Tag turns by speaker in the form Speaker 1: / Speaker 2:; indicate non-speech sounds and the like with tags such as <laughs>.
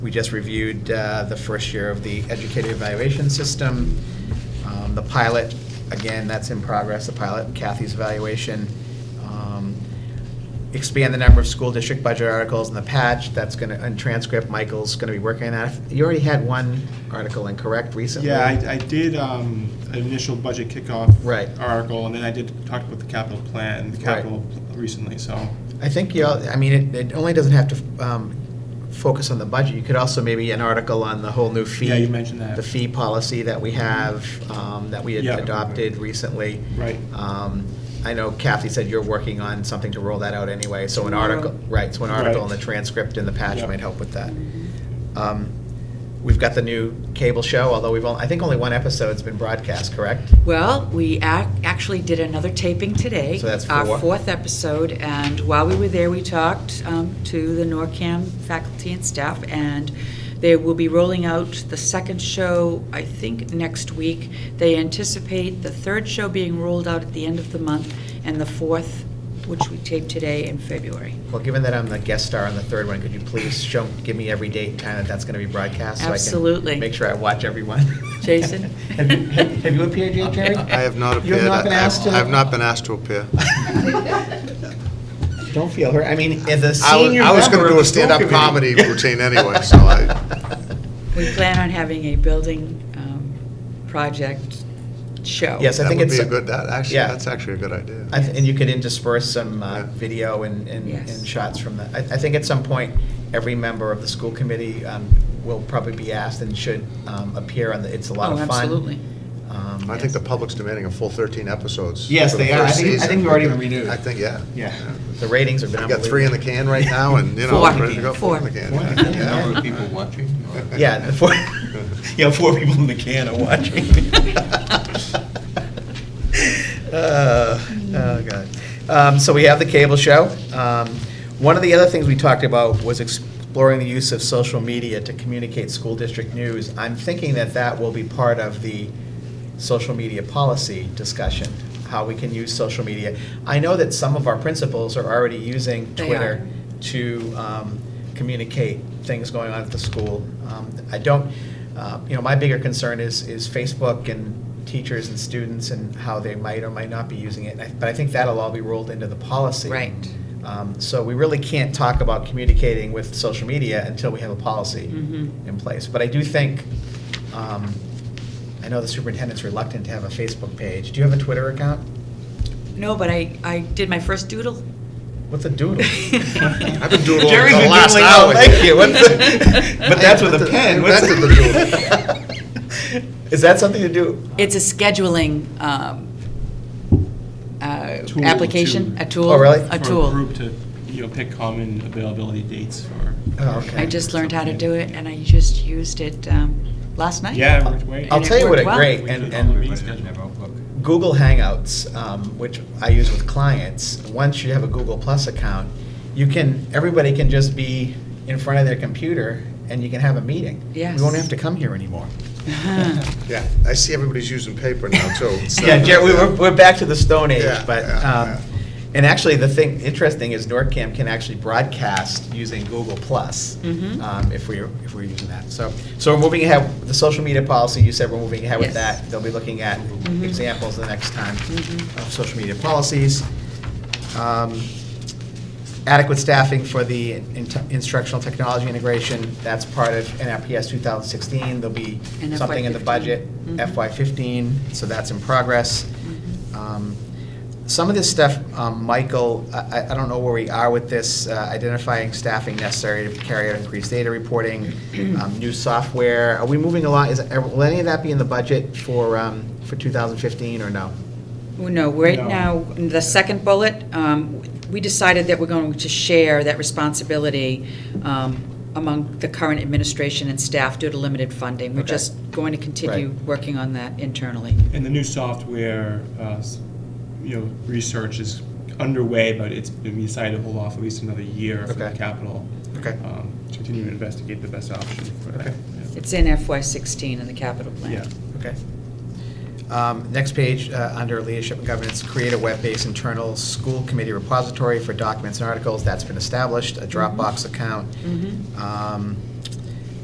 Speaker 1: We just reviewed uh, the first year of the educator evaluation system. Um, The pilot, again, that's in progress, the pilot, Kathy's evaluation. Um, Expand the number of school district budget articles in the patch, that's going to, and transcript, Michael's going to be working on that. You already had one article incorrect recently.
Speaker 2: Yeah, I, I did um, an initial budget kickoff.
Speaker 1: Right.
Speaker 2: Article, and then I did talk about the capital plan, the
Speaker 1: Right.
Speaker 2: capital pl- recently, so.
Speaker 1: I think you, all- I mean, it- it only doesn't have to um, focus on the budget. You could also maybe an article on the whole new fee.
Speaker 2: Yeah, you mentioned that.
Speaker 1: The fee policy that we have, um, that we had
Speaker 2: Yeah.
Speaker 1: adopted recently.
Speaker 2: Right.
Speaker 1: Um, I know Kathy said you're working on something to roll that out anyway, so an article, right, so an article in
Speaker 2: Right.
Speaker 1: the transcript and the patch
Speaker 2: Yeah.
Speaker 1: might help with that. Um, We've got the new cable show, although we've, only I think only one episode's been broadcast, correct?
Speaker 3: Well, we ac- actually did another taping today.
Speaker 1: So that's four.
Speaker 3: Our fourth episode, and while we were there, we talked um, to the NORCAM faculty and staff, and they will be rolling out the second show, I think, next week. They anticipate the third show being rolled out at the end of the month, and the fourth, which we taped today, in February.
Speaker 1: Well, given that I'm the guest star on the third one, could you please show, give me every date and time that that's going to be broadcast? so I can
Speaker 3: Absolutely.
Speaker 1: Make sure I watch everyone.
Speaker 3: Jason?
Speaker 1: <laughs> Have you- have have you appeared yet, Jerry?
Speaker 4: <laughs> I have not
Speaker 1: You
Speaker 4: appeared.
Speaker 1: have not been
Speaker 4: I-
Speaker 1: asked to?
Speaker 4: I have not been asked to appear.
Speaker 1: <laughs> Don't feel hurt. I mean, as a
Speaker 4: I was-
Speaker 1: senior
Speaker 4: I was gonna
Speaker 1: member
Speaker 4: do
Speaker 1: of
Speaker 4: a
Speaker 1: the school
Speaker 4: stand-up
Speaker 1: committee-
Speaker 4: comedy routine anyway, so I-
Speaker 3: <laughs> We plan on having a building um, project show.
Speaker 1: Yes, I
Speaker 4: That
Speaker 1: think
Speaker 4: would
Speaker 1: it's.
Speaker 4: be a good, that, actually,
Speaker 1: Yeah.
Speaker 4: that's actually a good idea.
Speaker 1: I th- And you could intersperse some uh,
Speaker 4: Yeah.
Speaker 1: video and, and
Speaker 3: Yes.
Speaker 1: and shots from that. I, I think at some point, every member of the school committee um, will probably be asked and should um, appear on the, it's a lot
Speaker 3: Oh,
Speaker 1: of fun.
Speaker 3: absolutely.
Speaker 1: Um,
Speaker 4: I think the public's demanding a full 13 episodes.
Speaker 1: Yes,
Speaker 4: for the
Speaker 1: they are. I
Speaker 4: first
Speaker 1: think- I
Speaker 4: season.
Speaker 1: think we already renewed.
Speaker 4: I think, yeah.
Speaker 1: Yeah, the ratings have been
Speaker 4: We
Speaker 1: unbelievable.
Speaker 4: got three in the can right now, and, you know,
Speaker 3: Four.
Speaker 4: ready to go. in the
Speaker 2: <laughs>
Speaker 3: Four.
Speaker 4: can.
Speaker 2: Four in the
Speaker 4: Yeah.
Speaker 2: can.
Speaker 4: <laughs>
Speaker 5: Number of people watching? or-
Speaker 1: Yeah, the four, <laughs>
Speaker 5: Yeah, four people in the can are watching.
Speaker 1: Uh, oh, God. Um, So we have the cable show. Um, One of the other things we talked about was exploring the use of social media to communicate school district news. I'm thinking that that will be part of the social media policy discussion, how we can use social media. I know that some of our principals are already using
Speaker 3: They are.
Speaker 1: Twitter to um, communicate things going on at the school. Um, I don't, uh, you know, my bigger concern is, is Facebook and teachers and students and how they might or might not be using it. And I- But I think that'll all be rolled into the policy.
Speaker 3: Right.
Speaker 1: Um, So we really can't talk about communicating with social media until we have a policy
Speaker 3: Mhm.
Speaker 1: in place. But I do think, um, I know the superintendent's reluctant to have a Facebook page. Do you have a Twitter account?
Speaker 3: No, but I, I did my first doodle
Speaker 1: What's a
Speaker 3: <laughs>
Speaker 1: doodle?
Speaker 4: I've been doodling for
Speaker 1: Jerry's
Speaker 4: the
Speaker 1: been
Speaker 4: last
Speaker 1: doodling
Speaker 4: hour.
Speaker 1: all- Thank you. What's the- <laughs> but that's with a
Speaker 4: Hey,
Speaker 1: pen. What's
Speaker 4: invented
Speaker 1: the <laughs> Is that something to do?
Speaker 3: It's a scheduling um, uh,
Speaker 2: Tool
Speaker 3: application,
Speaker 2: to-
Speaker 3: a tool.
Speaker 1: Oh, really?
Speaker 3: A
Speaker 2: For a
Speaker 3: tool.
Speaker 2: group to, you know, pick common availability dates for.
Speaker 1: Oh, okay.
Speaker 3: I just learned how to do it, and I just used it um, last night.
Speaker 2: Yeah, we're waiting.
Speaker 1: I'll
Speaker 3: And it
Speaker 1: tell you what
Speaker 3: worked
Speaker 1: a
Speaker 3: well.
Speaker 1: great and, and
Speaker 2: Meeting schedule.
Speaker 1: Google Hangouts, um, which I use with clients. Once you have a Google Plus account, you can everybody can just be in front of their computer and you can have a meeting.
Speaker 3: Yes.
Speaker 1: We won't have to come here anymore.
Speaker 4: <laughs> Yeah, I see everybody's using paper now, too.
Speaker 1: <laughs>
Speaker 4: so-
Speaker 1: Yeah, Jer- we- we're, we're back to the Stone Age,
Speaker 4: Yeah,
Speaker 1: but,
Speaker 4: yeah,
Speaker 1: um,
Speaker 4: yeah.
Speaker 1: and actually, the thing, interesting is NORCAM can actually broadcast using Google Plus,
Speaker 3: Mhm.
Speaker 1: um, if we're, if we're using that. So, so we're moving ahead, the social media policy, you said we're moving ahead with
Speaker 3: Yes.
Speaker 1: that. They'll be looking at
Speaker 3: Mhm.
Speaker 1: examples the next time
Speaker 3: Mhm.
Speaker 1: of social media policies. Um, adequate staffing for the in- instructional technology integration, that's part of NRPS 2016. There'll be
Speaker 3: And
Speaker 1: something in the
Speaker 3: FY15.
Speaker 1: budget,
Speaker 3: Mhm.
Speaker 1: FY15, so that's in progress. Um, Some of this stuff, um, Michael, I I- I don't know where we are with this, uh, identifying staffing necessary to carry out increased data reporting, um, new software. Are we moving along? Is, are- will any of that be in the budget for, um, for 2015 or no?
Speaker 3: <laughs> Well, No, right
Speaker 2: No.
Speaker 3: now, the second bullet, um, we decided that we're going to share that responsibility um, among the current administration and staff due to limited funding. We're
Speaker 1: Okay.
Speaker 3: just going to continue
Speaker 1: Right.
Speaker 3: working on that internally.
Speaker 2: And the new software, uh, s- you know, research is underway, but it's been decided to hold off at least another year for the
Speaker 1: Okay.
Speaker 2: capital.
Speaker 1: Okay.
Speaker 2: um, to Continue to investigate the best option for that.
Speaker 1: Okay.
Speaker 2: yeah.
Speaker 3: It's in FY16 in the capital plan.
Speaker 2: Yeah.
Speaker 1: Okay. Um, Next page, uh, under leadership and governance, create a web-based internal school committee repository for documents and articles. That's been established, a Dropbox account.
Speaker 3: Mhm.
Speaker 1: Um,